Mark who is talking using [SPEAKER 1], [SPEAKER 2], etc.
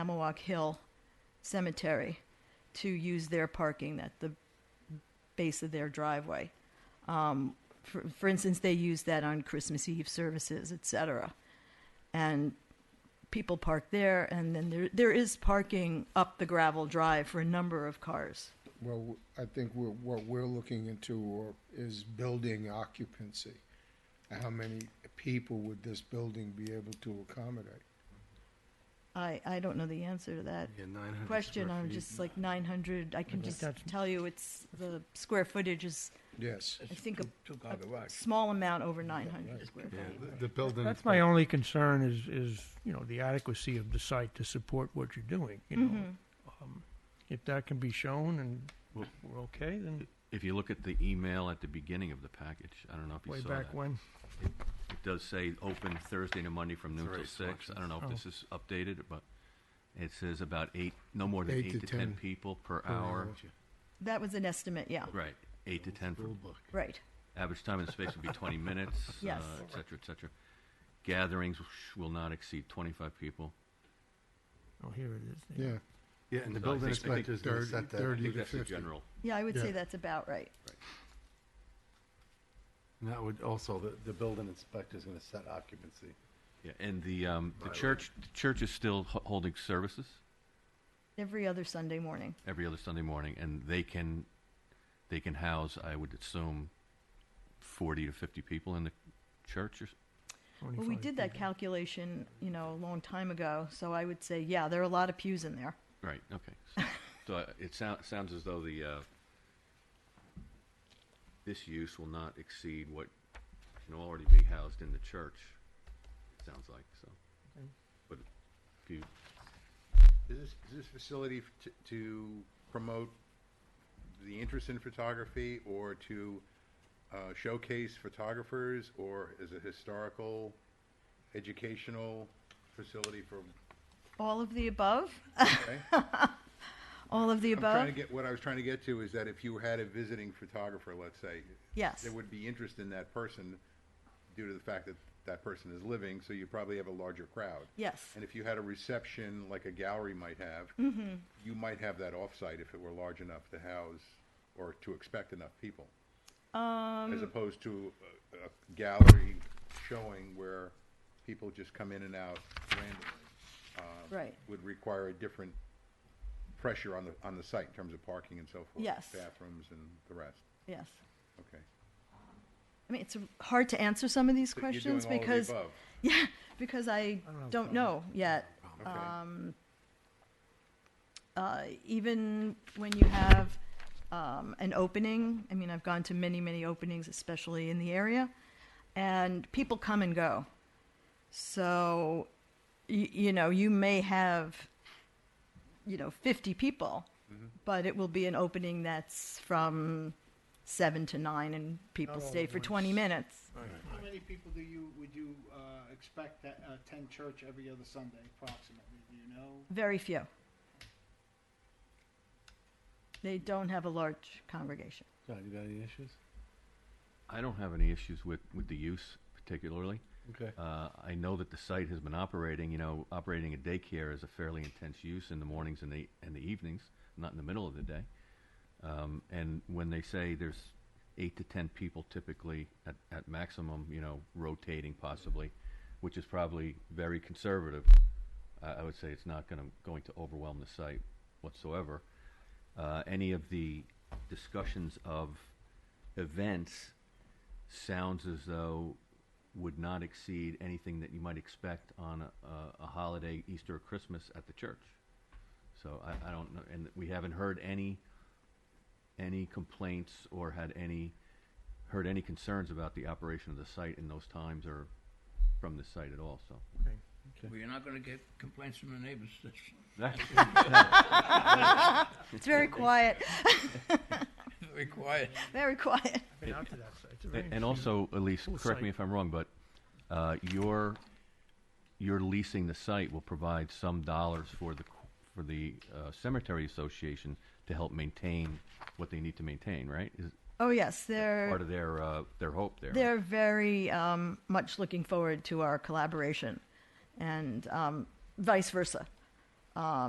[SPEAKER 1] Amawak Hill Cemetery to use their parking at the base of their driveway. Um, for, for instance, they use that on Christmas Eve services, et cetera. And people park there, and then there, there is parking up the gravel drive for a number of cars.
[SPEAKER 2] Well, I think we're, what we're looking into or- is building occupancy. How many people would this building be able to accommodate?
[SPEAKER 1] I, I don't know the answer to that
[SPEAKER 3] Yeah, 900
[SPEAKER 1] question.
[SPEAKER 3] square
[SPEAKER 1] I'm
[SPEAKER 3] feet.
[SPEAKER 1] just like 900. I can just
[SPEAKER 4] that's-
[SPEAKER 1] tell you it's the square footage is,
[SPEAKER 2] Yes,
[SPEAKER 1] I think, a,
[SPEAKER 5] Two-car
[SPEAKER 1] a
[SPEAKER 5] garage.
[SPEAKER 1] small amount over 900 square
[SPEAKER 3] Yeah,
[SPEAKER 1] feet.
[SPEAKER 3] the- the building.
[SPEAKER 4] That's my only concern is, is, you know, the adequacy of the site to support what you're doing, you know.
[SPEAKER 1] Mm-hmm.
[SPEAKER 4] Um, If that can be shown and
[SPEAKER 3] Well-
[SPEAKER 4] we're okay, then
[SPEAKER 3] If you look at the email at the beginning of the package, I don't know if
[SPEAKER 4] way
[SPEAKER 3] you saw
[SPEAKER 4] back
[SPEAKER 3] that.
[SPEAKER 4] when.
[SPEAKER 3] It does say open Thursday to Monday from noon
[SPEAKER 6] It's
[SPEAKER 3] till
[SPEAKER 6] already
[SPEAKER 3] six. I don't know if
[SPEAKER 4] Oh.
[SPEAKER 3] this is updated, but it says about eight, no more than
[SPEAKER 2] Eight to
[SPEAKER 3] eight to ten
[SPEAKER 2] 10
[SPEAKER 3] people per hour.
[SPEAKER 1] That was an estimate, yeah.
[SPEAKER 3] Right, eight to ten for
[SPEAKER 1] Right.
[SPEAKER 3] Average time in space would be 20 minutes, uh,
[SPEAKER 1] Yes.
[SPEAKER 3] et cetera, et cetera. Gatherings sh- will not exceed 25 people.
[SPEAKER 4] Oh, here it is. there.
[SPEAKER 2] yeah.
[SPEAKER 6] Yeah, and the
[SPEAKER 3] So I
[SPEAKER 6] building
[SPEAKER 3] think- I think
[SPEAKER 6] inspector's gonna
[SPEAKER 2] thirty-
[SPEAKER 6] set that.
[SPEAKER 3] I
[SPEAKER 2] thirty-
[SPEAKER 3] think
[SPEAKER 2] to
[SPEAKER 3] that's the
[SPEAKER 2] 50.
[SPEAKER 3] general.
[SPEAKER 1] Yeah, I would
[SPEAKER 2] Yeah.
[SPEAKER 1] say that's about right.
[SPEAKER 6] And that would also, the, the building inspector's gonna set occupancy.
[SPEAKER 3] Yeah, and the, um, the church, the church is still ho- holding services
[SPEAKER 1] Every other Sunday morning.
[SPEAKER 3] every other Sunday morning, and they can, they can house, I would assume, 40 to 50 people in the church or s-
[SPEAKER 1] Well, we
[SPEAKER 4] 25
[SPEAKER 1] did that
[SPEAKER 4] people.
[SPEAKER 1] calculation, you know, a long time ago, so I would say, yeah, there are a lot of pews in there.
[SPEAKER 3] Right. Okay. So, so uh, it sounds sounds as though the uh, this use will not exceed what can already be housed in the church. It sounds like so.
[SPEAKER 4] Okay.
[SPEAKER 3] But if you,
[SPEAKER 6] Is this, is this facility f- to- to promote the interest in photography or to uh, showcase photographers? Or is it historical, educational facility for,
[SPEAKER 1] All of the above?
[SPEAKER 6] okay?
[SPEAKER 1] All of the
[SPEAKER 6] I'm trying to
[SPEAKER 1] above?
[SPEAKER 6] get, what I was trying to get to is that if you had a visiting photographer, let's say,
[SPEAKER 1] Yes.
[SPEAKER 6] there would be interest in that person due to the fact that that person is living, so you probably have a larger crowd.
[SPEAKER 1] Yes.
[SPEAKER 6] And if you had a reception like a gallery might have, you might have that offsite if it were large enough to house or to expect enough people,
[SPEAKER 1] Um,
[SPEAKER 6] as opposed to a, a gallery showing where people just come in and out randomly. um,
[SPEAKER 1] Right.
[SPEAKER 6] Would require a different pressure on the on the site in terms of parking and so forth.
[SPEAKER 1] Yes.
[SPEAKER 6] Bathrooms and the rest.
[SPEAKER 1] yes.
[SPEAKER 6] Okay.
[SPEAKER 1] I mean, it's hard to answer some of these
[SPEAKER 6] So you're doing
[SPEAKER 1] questions
[SPEAKER 6] all of the
[SPEAKER 1] because,
[SPEAKER 6] above.
[SPEAKER 1] yeah, because I
[SPEAKER 4] don't
[SPEAKER 1] don't know yet.
[SPEAKER 6] Okay.
[SPEAKER 1] um, uh, even when you have um, an opening, I mean, I've gone to many, many openings, especially in the area, and people come and go. So, y- you know, you may have, you know, 50 people, but it will be an opening that's from 7 to 9, and people
[SPEAKER 4] Not all
[SPEAKER 1] stay
[SPEAKER 4] at
[SPEAKER 1] for 20
[SPEAKER 4] once.
[SPEAKER 1] minutes.
[SPEAKER 5] How many people do you, would you uh, expect to attend church every other Sunday approximately? Do you know?
[SPEAKER 1] Very few. They don't have a large congregation.
[SPEAKER 6] John, you got any issues?
[SPEAKER 3] I don't have any issues with with the use particularly.
[SPEAKER 6] Okay.
[SPEAKER 3] Uh, I know that the site has been operating. You know, operating a daycare is a fairly intense use in the mornings and the and the evenings, not in the middle of the day. Um, and when they say there's eight to ten people typically at, at maximum, you know, rotating possibly, which is probably very conservative. I, I would say it's not going to going to overwhelm the site whatsoever. Uh, any of the discussions of events sounds as though would not exceed anything that you might expect on a, a, a holiday, Easter or Christmas at the church. So I, I don't know, and we haven't heard any any complaints or had any heard any concerns about the operation of the site in those times or from the site at all. So
[SPEAKER 7] Well, you're not gonna get complaints from the neighbors. That's-
[SPEAKER 3] that's
[SPEAKER 1] It's very quiet.
[SPEAKER 7] Very quiet.
[SPEAKER 1] Very quiet.
[SPEAKER 4] Been out to that site. It's a very
[SPEAKER 3] A- And
[SPEAKER 4] interesting-
[SPEAKER 3] also, Elise,
[SPEAKER 4] Cool
[SPEAKER 3] correct me
[SPEAKER 4] site.
[SPEAKER 3] if I'm wrong, but uh, your, your leasing the site will provide some dollars for the, qu- for the uh, cemetery association to help maintain what they need to maintain, right? Is
[SPEAKER 1] Oh yes, they're
[SPEAKER 3] part of their, uh, their hope there? right?
[SPEAKER 1] they're very um, much looking forward to our collaboration, and um, vice versa.